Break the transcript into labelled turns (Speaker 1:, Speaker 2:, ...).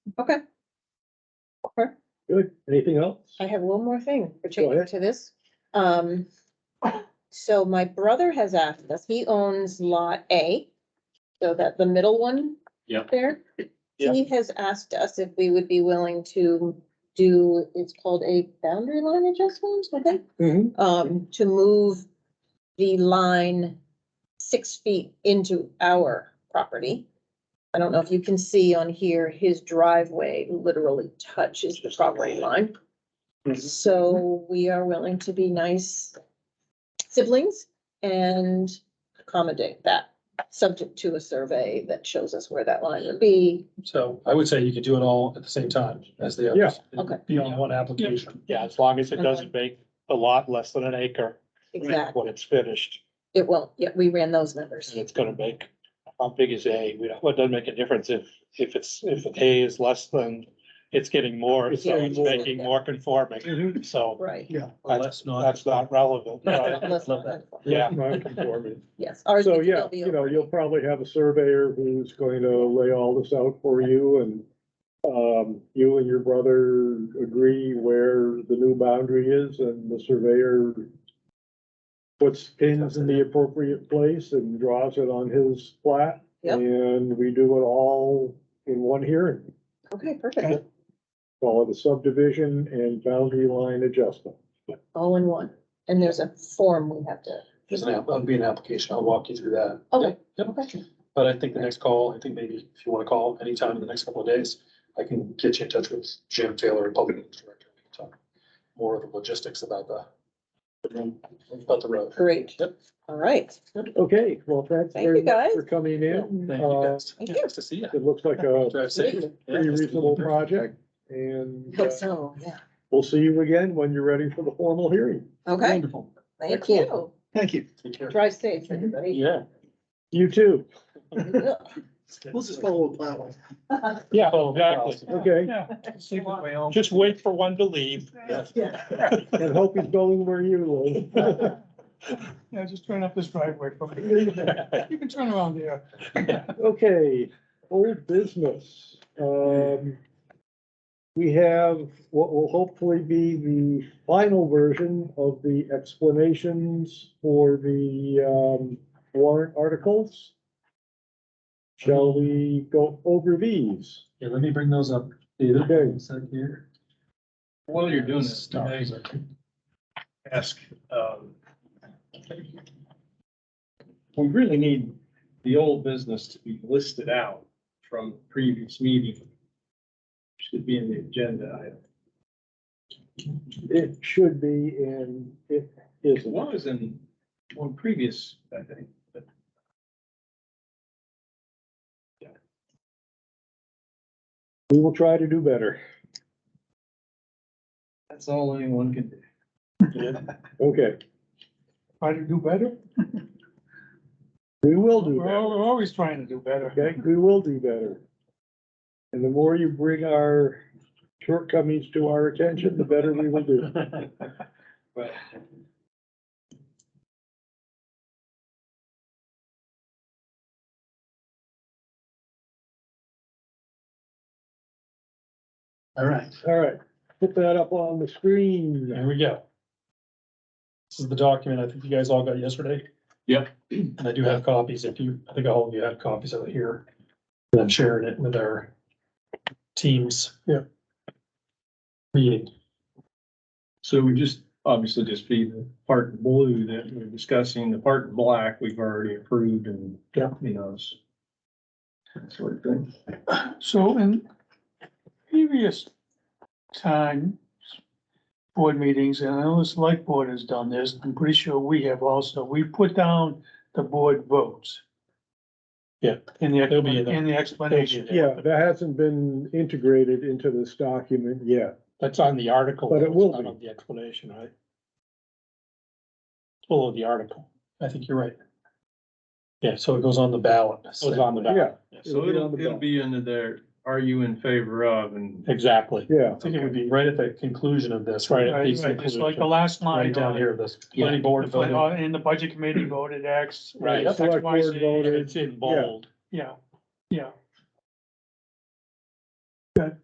Speaker 1: Okay. Okay.
Speaker 2: Good. Anything else?
Speaker 3: I have one more thing
Speaker 2: ahead.
Speaker 3: pertaining to this. Um, so my brother has asked us, he owns lot A. So that the middle one.
Speaker 4: Yep.
Speaker 3: There.
Speaker 2: Yeah.
Speaker 3: He has asked us if we would be willing to do, it's called a boundary line adjustment, I think,
Speaker 2: Mhm.
Speaker 3: um, to move the line six feet into our property. I don't know if you can see on here, his driveway literally touches the property line. So we are willing to be nice siblings and accommodate that, subject to a survey that shows us where that line would be.
Speaker 5: So I would say you could do it all at the same time as the others.
Speaker 3: Okay.
Speaker 5: Be on one application.
Speaker 2: Yeah, as long
Speaker 3: Uh,
Speaker 2: as it doesn't make a lot less than an acre
Speaker 3: Exactly.
Speaker 2: when it's finished,
Speaker 3: It won't, yeah, we ran those numbers.
Speaker 2: it's gonna make, how big is A? We don't, well, it doesn't make a difference if, if it's, if A is less than, it's getting more,
Speaker 5: It's
Speaker 2: so
Speaker 5: getting
Speaker 2: it's
Speaker 5: more.
Speaker 2: making more conforming,
Speaker 6: Mm-hmm.
Speaker 2: so
Speaker 3: Right.
Speaker 5: Well, that's not.
Speaker 2: that's not relevant.
Speaker 5: Yeah.
Speaker 3: Let's
Speaker 5: love
Speaker 3: not-
Speaker 5: that.
Speaker 2: Yeah.
Speaker 7: Non-conforming.
Speaker 3: Yes. ours
Speaker 7: So,
Speaker 3: would still
Speaker 7: yeah,
Speaker 3: be
Speaker 7: you know,
Speaker 3: over.
Speaker 7: you'll probably have a surveyor who's going to lay all this out for you and um, you and your brother agree where the new boundary is and the surveyor puts pins in the appropriate place and draws it on his plat.
Speaker 3: Yep.
Speaker 7: And we do it all in one hearing,
Speaker 3: Okay, perfect.
Speaker 7: call it a subdivision and boundary line adjustment.
Speaker 3: All in one. And there's a form we have to,
Speaker 5: There's an, app- that'll be an application. I'll walk you through that.
Speaker 3: Okay.
Speaker 5: Yep. Yep. But I think the next call, I think maybe if you want to call anytime in the next couple of days, I can get you in touch with Jim Taylor, Public Works Director. We can Talk more of the logistics about the about the road.
Speaker 3: great.
Speaker 5: Yep.
Speaker 3: All right.
Speaker 7: Okay, well, thanks
Speaker 3: Thank
Speaker 7: very
Speaker 3: you,
Speaker 7: much
Speaker 3: guys.
Speaker 7: for coming in.
Speaker 5: Thank you guys.
Speaker 3: Thank you.
Speaker 5: Uh, Nice to see you.
Speaker 7: It looks like a
Speaker 5: Drive safe.
Speaker 7: pretty
Speaker 5: Yeah.
Speaker 7: reasonable project, and uh,
Speaker 3: Hope so, yeah.
Speaker 7: we'll see you again when you're ready for the formal hearing.
Speaker 3: Okay,
Speaker 5: Wonderful.
Speaker 3: thank you.
Speaker 2: Thank you.
Speaker 5: Take care.
Speaker 3: Drive safe, everybody.
Speaker 2: Yeah,
Speaker 7: You too,
Speaker 4: We'll just follow the plow.
Speaker 2: yeah,
Speaker 5: Oh, wow.
Speaker 2: exactly.
Speaker 7: okay,
Speaker 2: Yeah, just wait for one to leave.
Speaker 7: and hope he's going where you live.
Speaker 6: Yeah, just turn up this driveway for me.
Speaker 2: Yes.
Speaker 6: You can turn around here.
Speaker 7: Okay, old business, um. We have what will hopefully be the final version of the explanations for the, um, warrant articles. Shall we go over these?
Speaker 5: Yeah, let me bring those up.
Speaker 7: Okay.
Speaker 5: One sec here.
Speaker 4: While you're doing this, can
Speaker 5: Start.
Speaker 4: I ask, um, we really need the old business to be listed out from previous meeting. Should be in the agenda item.
Speaker 7: It should be, and it
Speaker 4: It
Speaker 7: isn't.
Speaker 4: was in one previous, I think. but-
Speaker 7: We will try to do better.
Speaker 4: That's all anyone can do.
Speaker 7: Okay,
Speaker 6: Try to do better.
Speaker 7: we will do
Speaker 6: We're,
Speaker 7: better.
Speaker 6: al- we're always trying to do better.
Speaker 7: Okay, we will do better. And the more you bring our shortcomings to our attention, the better we will do.
Speaker 4: But
Speaker 5: All right.
Speaker 7: All right, put that up on the screen.
Speaker 5: Here we go. This is the document I think you guys all got yesterday.
Speaker 4: Yep.
Speaker 5: And I do have copies, if you, I think all of you have copies of it here. And I'm sharing it with our teams. Yeah. Meeting.
Speaker 4: So we just, obviously just be the part in blue that we're discussing, the part in black we've already approved and,
Speaker 5: Yeah.
Speaker 4: you know, it's. That sort of thing.
Speaker 6: So in previous times, board meetings, and I know the select board has done this, I'm pretty sure we have also, we put down the board votes.
Speaker 5: Yeah,
Speaker 6: In the,
Speaker 5: they'll be in there.
Speaker 6: in the explanation.
Speaker 7: Yeah, that hasn't been integrated into this document yet.
Speaker 2: That's on the article.
Speaker 7: But it
Speaker 2: it's
Speaker 7: will
Speaker 2: not
Speaker 7: be.
Speaker 2: on The explanation, right? Below the article,
Speaker 5: I think you're right. Yeah, so it goes on the ballot.
Speaker 2: it was on the back,
Speaker 7: Yeah, It'll
Speaker 4: So
Speaker 7: be on
Speaker 4: it'll,
Speaker 7: the
Speaker 4: it'll
Speaker 7: bill.
Speaker 4: be under there, are you in favor of and
Speaker 2: exactly.
Speaker 7: yeah.
Speaker 5: I think it would be right at the conclusion of this,
Speaker 2: Right.
Speaker 5: right?
Speaker 6: Right,
Speaker 2: Piece of
Speaker 6: right, It's like the
Speaker 2: inclusion.
Speaker 6: last line.
Speaker 5: Right down
Speaker 6: on it.
Speaker 5: here, this
Speaker 2: Yeah.
Speaker 5: planning board
Speaker 6: The plan-
Speaker 5: voted.
Speaker 6: uh, And the budget committee voted X.
Speaker 2: Right.
Speaker 6: X,
Speaker 7: Select
Speaker 6: Y,
Speaker 7: board
Speaker 6: Z,
Speaker 7: voted.
Speaker 2: It's in bold.
Speaker 6: Yeah, yeah.